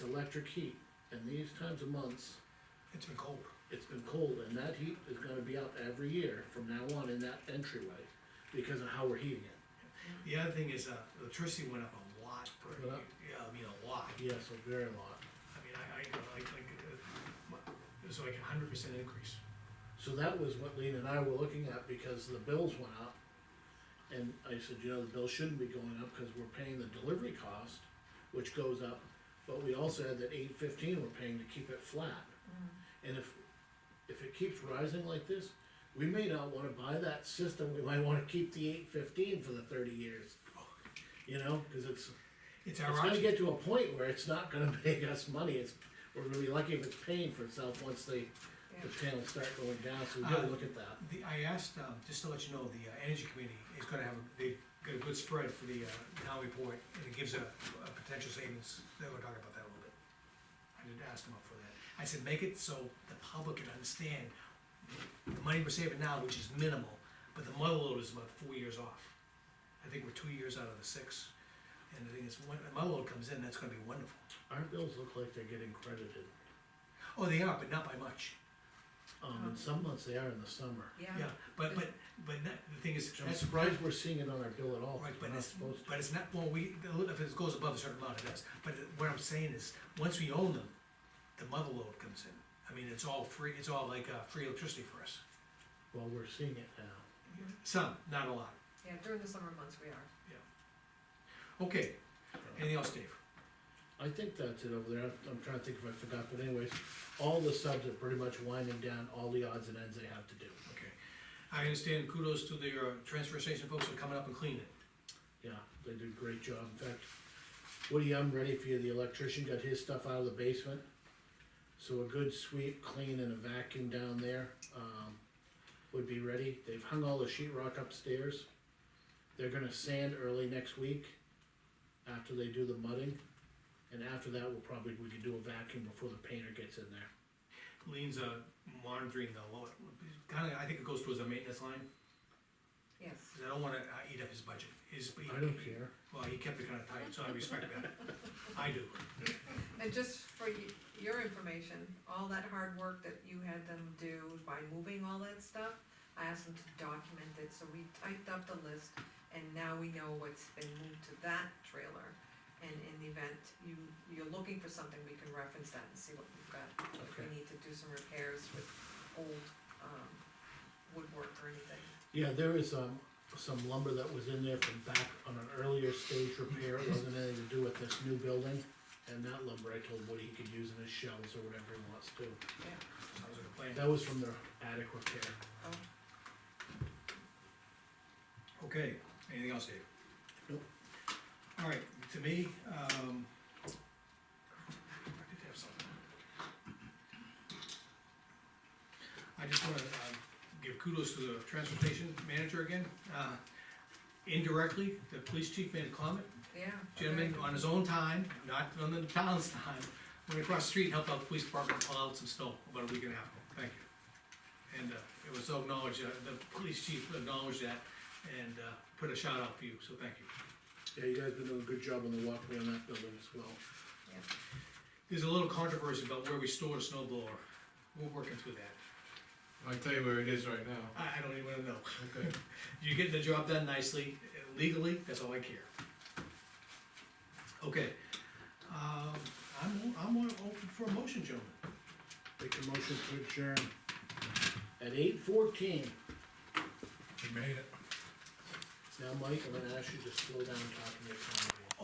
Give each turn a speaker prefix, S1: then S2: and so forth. S1: electric heat, and these times of months,
S2: It's been cold.
S1: it's been cold, and that heat is gonna be up every year from now on in that entryway, because of how we're heating it.
S2: The other thing is, uh, electricity went up a lot per,
S1: Went up?
S2: yeah, I mean, a lot.
S1: Yes, a very lot.
S2: I mean, I, I, like, like, uh, it was like a hundred percent increase.
S1: So that was what Lean and I were looking at, because the bills went up. And I said, you know, the bill shouldn't be going up, cause we're paying the delivery cost, which goes up, but we also had that eight fifteen we're paying to keep it flat. And if, if it keeps rising like this, we may not wanna buy that system, we might wanna keep the eight fifteen for the thirty years. You know, cause it's,
S2: It's
S1: it's
S2: our
S1: gonna
S2: option,
S1: get to a point where it's not gonna make us money, it's, we're really lucky if it's paying for itself once they, the panels start going down, so we gotta look at that.
S2: the, I asked, um, just to let you know, the, uh, energy committee is gonna have, a- they got a good spread for the, uh, town report, and it gives a, a potential savings, they were talking about that a little bit. I did ask them up for that, I said, make it so the public can understand, the money we're saving now, which is minimal, but the mother load is about four years off. I think we're two years out of the six, and the thing is, when the mother load comes in, that's gonna be wonderful.
S1: Our bills look like they're getting credited,
S2: Oh, they are, but not by much.
S1: um, and some months they are in the summer.
S2: Yeah,
S3: Yeah,
S2: but, but, but not, the thing is,
S1: Which I'm
S2: that's
S1: surprised we're seeing it on our bill at all,
S2: right,
S1: 'cause
S2: but
S1: we're not
S2: it's,
S1: supposed to.
S2: but it's not, well, we, if it goes above a certain amount, it does. But what I'm saying is, once we own them, the mother load comes in. I mean, it's all free, it's all like, uh, free electricity for us.
S1: Well, we're seeing it now.
S2: Some, not a lot,
S3: yeah, during the summer months we are.
S2: yeah. Okay, anything else, Dave?
S1: I think that's it over there, I'm- I'm trying to think if I forgot, but anyways, all the subs are pretty much winding down all the odds and ends they have to do.
S2: Okay. I understand kudos to the, uh, transfer station folks for coming up and cleaning.
S1: Yeah, they did a great job, in fact, Woody, I'm ready for you, the electrician got his stuff out of the basement. So a good sweep, clean and a vacuum down there, um, would be ready, they've hung all the sheet rock upstairs. They're gonna sand early next week, after they do the mudding, and after that, we'll probably, we could do a vacuum before the painter gets in there.
S2: Lean's, uh, monitoring the load, kinda, I think it goes towards the maintenance line,
S3: Yes,
S2: cause I don't wanna uh, eat up his budget. His,
S1: I don't care.
S2: Well, he kept it kinda tight, so I respect that. I do.
S3: and just for y- your information, all that hard work that you had them do by moving all that stuff, I asked them to document it, so we typed up the list, and now we know what's been moved to that trailer. And in the event you, you're looking for something, we can reference that and see what we've got. If we
S1: Okay.
S3: need to do some repairs with old, um, woodwork or anything.
S1: Yeah, there is, um, some lumber that was in there from back on an earlier stage repair, it wasn't anything to do with this new building. And that lumber, I told Woody he could use in his shelves or whatever he wants to,
S2: Sounds like a plan.
S1: that was from their attic repair.
S3: Oh,
S2: Okay, anything else, Dave?
S1: Nope.
S2: All right, to me, um, I did have something. I just wanna, uh, give kudos to the transportation manager again, uh, indirectly, the police chief made a comment,
S3: yeah.
S2: gentleman on his own time, not on the town's time, went across the street, and helped out the police department pull out some snow about a week and a half ago, thank you. And, uh, it was acknowledged, uh, the police chief acknowledged that and, uh, put a shout out for you, so thank you.
S1: Yeah, you guys been doing a good job on the walkway on that building as well.
S2: There's a little controversy about where we store the snow blower, we're working through that,
S4: I'll tell you where it is right now.
S2: I, I don't even wanna know.
S4: Okay.
S2: You're getting the job done nicely, uh, legally, that's all I care. Okay, um, I'm, I'm open for a motion, gentlemen.
S1: Make a motion to adjourn. At eight fourteen,
S4: You made it.
S1: now Mike, I'm gonna ask you to slow down talking to your camera.